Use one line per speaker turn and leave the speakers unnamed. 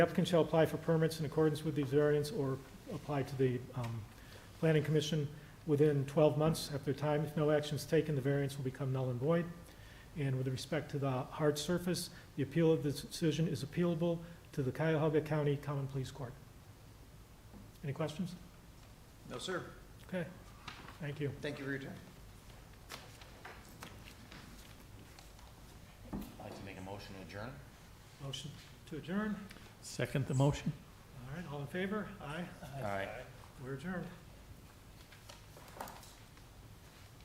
The applicant shall apply for permits in accordance with these variants or apply to the um, planning commission within 12 months after time. If no action is taken, the variance will become null and void. And with respect to the hard surface, the appeal of this decision is appealable to the Cuyahoga County Common Pleas Court. Any questions?
No, sir.
Okay, thank you.
Thank you for your time.
I'd like to make a motion to adjourn.
Motion to adjourn.
Second the motion?
All right, all in favor? Aye.
All right.
We're adjourned.